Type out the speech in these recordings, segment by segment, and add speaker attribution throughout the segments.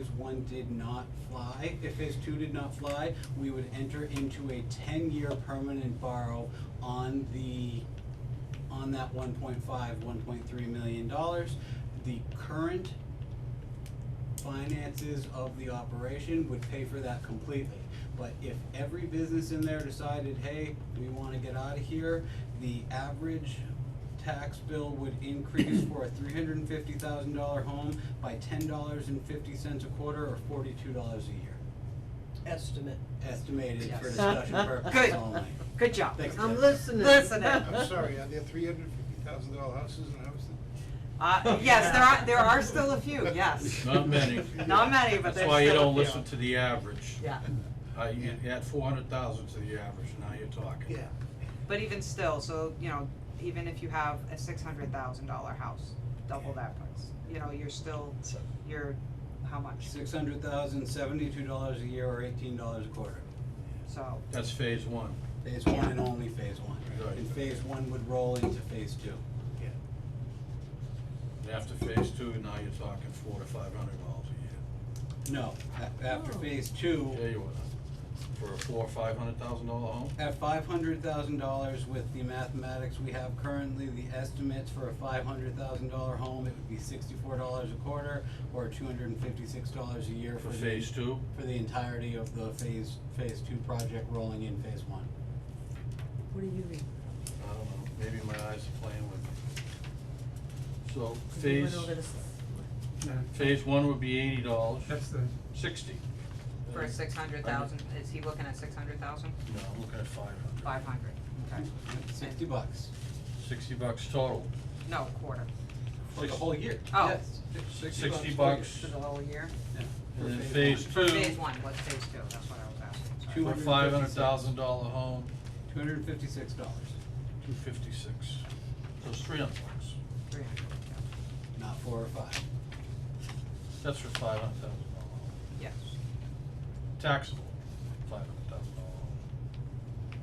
Speaker 1: his one did not fly, if his two did not fly, we would enter into a ten-year permanent borrow on the, on that 1.5, 1.3 million dollars. The current finances of the operation would pay for that completely. But if every business in there decided, hey, we wanna get out of here, the average tax bill would increase for a three hundred and fifty thousand dollar home by ten dollars and fifty cents a quarter or forty-two dollars a year,
Speaker 2: estimate.
Speaker 1: estimated for
Speaker 2: Yes.
Speaker 1: discussion purposes
Speaker 3: Good.
Speaker 1: only.
Speaker 3: Good job.
Speaker 1: Thanks,
Speaker 3: I'm
Speaker 1: Jeff.
Speaker 3: listening.
Speaker 2: Listening.
Speaker 4: I'm sorry, are there three hundred and fifty thousand dollar houses in Hubbardston?
Speaker 3: Uh, yes, there are, there are still a few, yes.
Speaker 5: Not many.
Speaker 3: Not many, but
Speaker 5: That's
Speaker 3: there's
Speaker 5: why you
Speaker 3: still a
Speaker 5: don't
Speaker 3: few.
Speaker 5: listen to the average.
Speaker 3: Yeah,
Speaker 5: Uh, you add four hundred thousand to the average, now you're talking.
Speaker 4: Yeah.
Speaker 3: but even still, so, you know, even if you have a six hundred thousand dollar house, double that price, you know, you're still, you're, how much?
Speaker 1: Six hundred thousand, seventy-two dollars a year or eighteen dollars a quarter.
Speaker 3: So,
Speaker 5: That's phase one.
Speaker 1: Phase one and only phase one.
Speaker 5: Right.
Speaker 1: And phase one would roll into phase two.
Speaker 4: Yeah.
Speaker 5: And After phase two, now you're talking four to five hundred dollars a
Speaker 1: No, a- after
Speaker 3: Oh.
Speaker 1: phase two,
Speaker 5: year. Tell you what, for a four, or five hundred thousand dollar home,
Speaker 1: At five hundred thousand dollars with the mathematics we have currently, the estimates for a five hundred thousand dollar home, it would be sixty-four dollars a quarter or two hundred and fifty-six dollars a year for
Speaker 5: for
Speaker 1: the.
Speaker 5: phase two,
Speaker 1: For the entirety of the phase, phase two project rolling in phase one.
Speaker 2: What do you read?
Speaker 5: I don't know, maybe my eyes are playing with me. So
Speaker 2: We
Speaker 5: phase,
Speaker 2: went over this.
Speaker 5: phase one would be eighty dollars,
Speaker 6: That's the,
Speaker 5: sixty.
Speaker 3: for six hundred thousand, is he looking at six hundred thousand?
Speaker 5: No, I'm looking at five hundred.
Speaker 3: Five hundred, okay,
Speaker 1: Sixty bucks
Speaker 5: Sixty bucks total.
Speaker 3: no, quarter,
Speaker 1: for the whole year,
Speaker 3: Oh.
Speaker 1: yes. Six-
Speaker 5: Sixty
Speaker 1: per year.
Speaker 5: bucks,
Speaker 3: for the whole year?
Speaker 1: Yeah, for
Speaker 5: and then
Speaker 1: phase
Speaker 5: phase
Speaker 1: one.
Speaker 5: two.
Speaker 3: Phase one, what's phase two, that's what I was asking,
Speaker 1: Two
Speaker 3: sorry.
Speaker 5: For
Speaker 1: hun-
Speaker 5: a five hundred thousand dollar home,
Speaker 1: Two hundred and fifty-six dollars,
Speaker 5: two fifty-six, so it's three hundred bucks.
Speaker 3: Three hundred,
Speaker 1: not four or five.
Speaker 5: That's for five hundred thousand dollar home,
Speaker 3: yeah, yes.
Speaker 5: taxable five hundred thousand dollar home.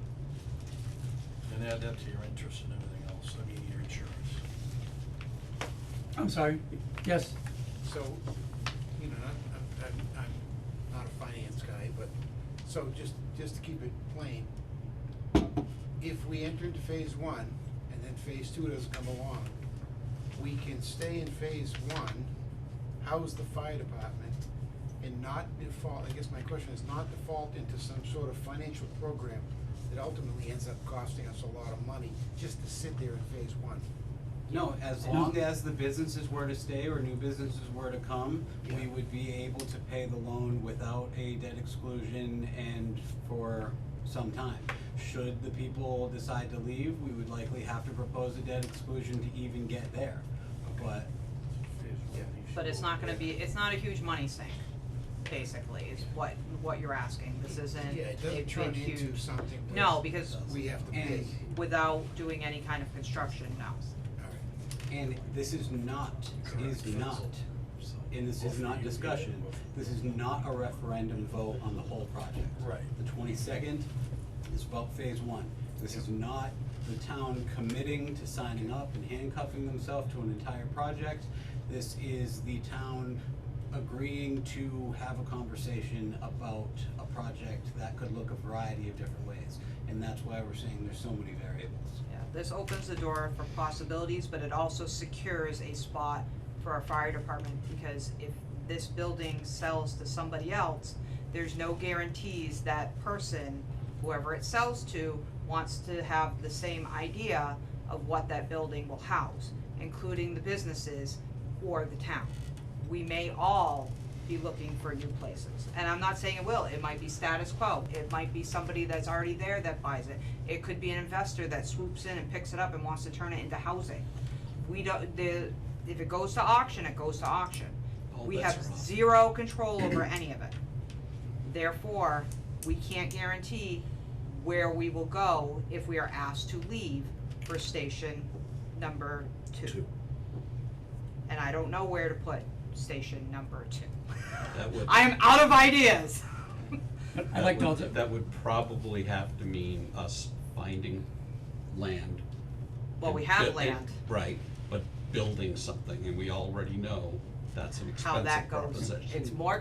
Speaker 5: And add that to your interest and everything else, I mean, your insurance.
Speaker 6: I'm sorry, yes,
Speaker 4: So, you know, I'm, I'm, I'm not a finance guy, but, so just, just to keep it plain, if we enter into phase one and then phase two doesn't come along, we can stay in phase one, house the fire department, and not default, I guess my question is not default into some sort of financial program that ultimately ends up costing us a lot of money just to sit there in phase one.
Speaker 1: No, as
Speaker 6: No.
Speaker 1: long as the businesses were to stay or new businesses were to come, we
Speaker 4: Yeah.
Speaker 1: would be able to pay the loan without a debt exclusion and for some time. Should the people decide to leave, we would likely have to propose a debt exclusion to even get there. But
Speaker 5: Phase one,
Speaker 4: Yeah.
Speaker 5: you
Speaker 3: But it's
Speaker 5: should-
Speaker 3: not gonna be, it's not a huge money sink, basically, is what, what you're asking, this isn't a big, huge.
Speaker 4: Yeah, it doesn't turn into something where
Speaker 3: No, because
Speaker 4: we have to pay.
Speaker 1: And-
Speaker 3: without doing any kind of construction, no.
Speaker 4: All right.
Speaker 1: And this is not, is not, and this is not discussion, this is not a referendum vote on the whole project.
Speaker 5: Right.
Speaker 1: The twenty-second is about phase one. This is not the town committing to signing up and handcuffing themselves to an entire project. This is the town agreeing to have a conversation about a project that could look a variety of different ways. And that's why we're saying there's so many variables.
Speaker 3: Yeah, this opens the door for possibilities, but it also secures a spot for our fire department, because if this building sells to somebody else, there's no guarantees that person, whoever it sells to, wants to have the same idea of what that building will house, including the businesses or the town. We may all be looking for new places. And I'm not saying it will, it might be status quo, it might be somebody that's already there that buys it. It could be an investor that swoops in and picks it up and wants to turn it into housing. We don't, the, if it goes to auction, it goes to auction.
Speaker 5: All
Speaker 3: We
Speaker 5: bets
Speaker 3: have
Speaker 5: are off.
Speaker 3: zero control over any of it. Therefore, we can't guarantee where we will go if we are asked to leave for station number two. And I don't know where to put station number two.
Speaker 7: That would,
Speaker 3: I am out of ideas.
Speaker 6: I'd
Speaker 7: that
Speaker 6: like to
Speaker 7: would-
Speaker 6: alter,
Speaker 7: That would probably have to mean us finding land.
Speaker 3: Well,
Speaker 7: and
Speaker 3: we have
Speaker 7: bu-
Speaker 3: land.
Speaker 7: Right, but building something, and we already know that's an
Speaker 3: How that
Speaker 7: expensive
Speaker 3: goes.
Speaker 7: proposition.
Speaker 3: It's more